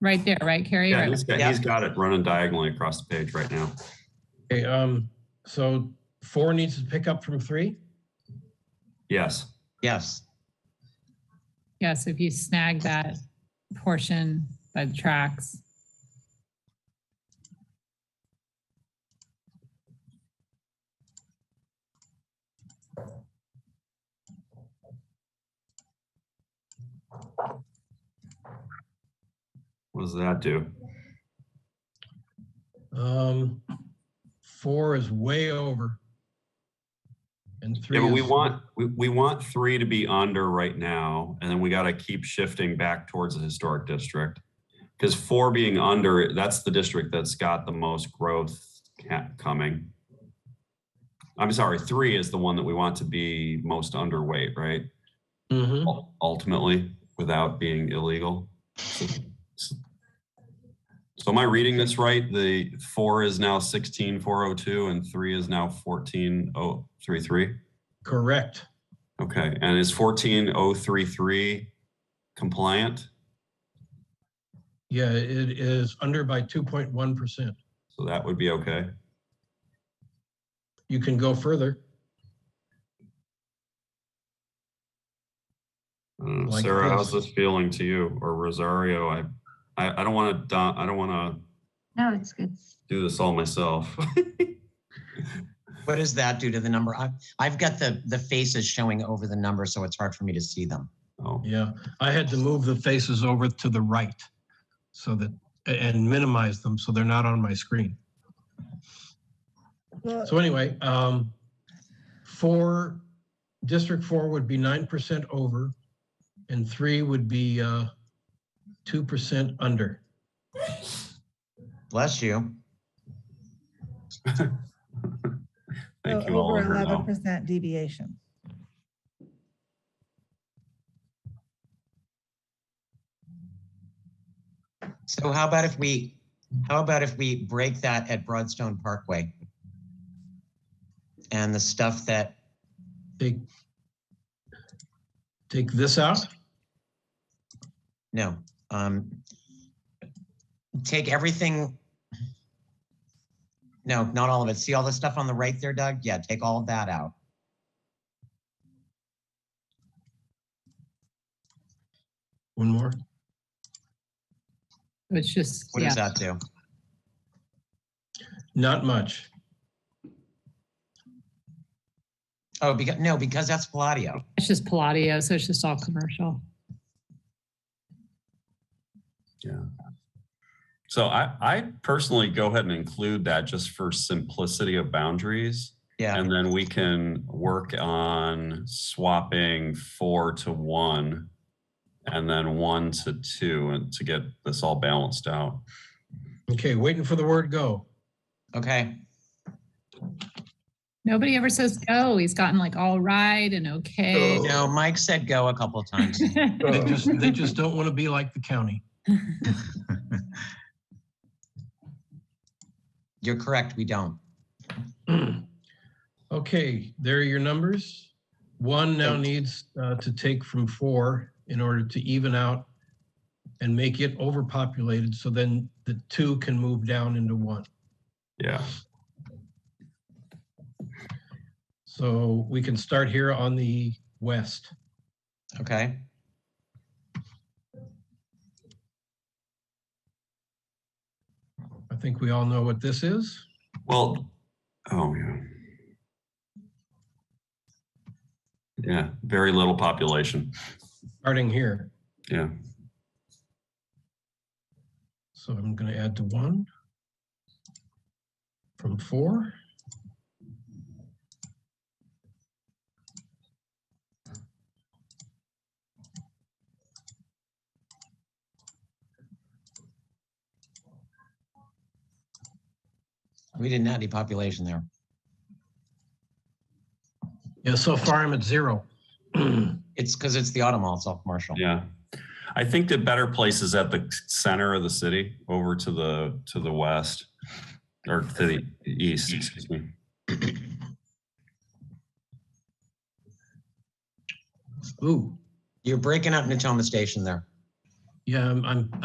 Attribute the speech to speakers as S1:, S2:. S1: Right there, right, Carrie?
S2: Yeah,
S1: Right.
S2: he's got, he's got it running diagonally across the page right now.
S3: Okay, um, so four needs to pick up from three?
S2: Yes.
S4: Yes,
S1: Yeah, so if you snag that portion by the tracks.
S2: What does that do?
S3: Um, four is way over. And three
S2: Yeah, but we
S3: is-
S2: want, we, we want three to be under right now, and then we gotta keep shifting back towards the historic district. Because four being under, that's the district that's got the most growth ca- coming. I'm sorry, three is the one that we want to be most underweight, right?
S3: Mhm.
S2: Ul- Ultimately, without being illegal. So am I reading this right? The four is now sixteen four oh two and three is now fourteen oh three three?
S3: Correct.
S2: Okay, and is fourteen oh three three compliant?
S3: Yeah, it is under by 2.1%.
S2: So that would be okay.
S3: You can go further.
S2: I don't know.
S3: Like
S2: Uh, Sarah,
S3: this.
S2: how's this feeling to you or Rosario? I, I, I don't want to, I don't want
S5: No, it's good.
S2: to do this all myself.
S4: what does that do to the number? I've, I've got the, the faces showing over the number, so it's hard for me to see them.
S2: Oh,
S3: Yeah, I had to move the faces over to the right so that, and minimize them so they're not on my screen. So anyway, um, four, District Four would be nine percent over and three would be, uh, two percent under.
S4: Bless you.
S2: thank
S6: So
S2: you all.
S6: Over
S2: for
S6: eleven
S2: now.
S6: percent deviation.
S4: So how about if we, how about if we break that at Broadstone Parkway? And the stuff that,
S3: Take, take this out?
S4: no, um, take everything. No, not all of it. See all the stuff on the right there, Doug? Yeah, take all of that out.
S3: One more.
S1: It's just,
S4: What
S1: yeah,
S4: does that do?
S3: Not much.
S4: Oh, because, no, because that's Palladio.
S1: it's just Palladio, so it's just all commercial.
S2: So I, I personally go ahead and include that just for simplicity of boundaries.
S4: Yeah.
S2: And then we can work on swapping four to one and then one to two and to get this all balanced out.
S3: Okay, waiting for the word go.
S4: Okay.
S1: Nobody ever says go. He's gotten like all right and okay.
S4: No, Mike said go a couple of times.
S3: They just, they just don't want to be like the county.
S4: You're correct, we don't.
S3: Okay, there are your numbers. One now needs uh, to take from four in order to even out and make it overpopulated, so then the two can move down into one.
S2: Yeah.
S3: So we can start here on the west.
S4: Okay,
S3: I think we all know what this is.
S2: Well, oh, yeah. Yeah, very little population.
S3: starting here.
S2: Yeah.
S3: So I'm going to add to one from four.
S4: we didn't have any population there.
S3: Yeah, so far I'm at zero.
S4: It's because it's the auto mall, it's all commercial.
S2: Yeah. I think the better place is at the center of the city over to the, to the west or to the east, excuse me.
S3: Ooh,
S4: You're breaking up Natoma Station there.
S3: yeah, I'm, I'm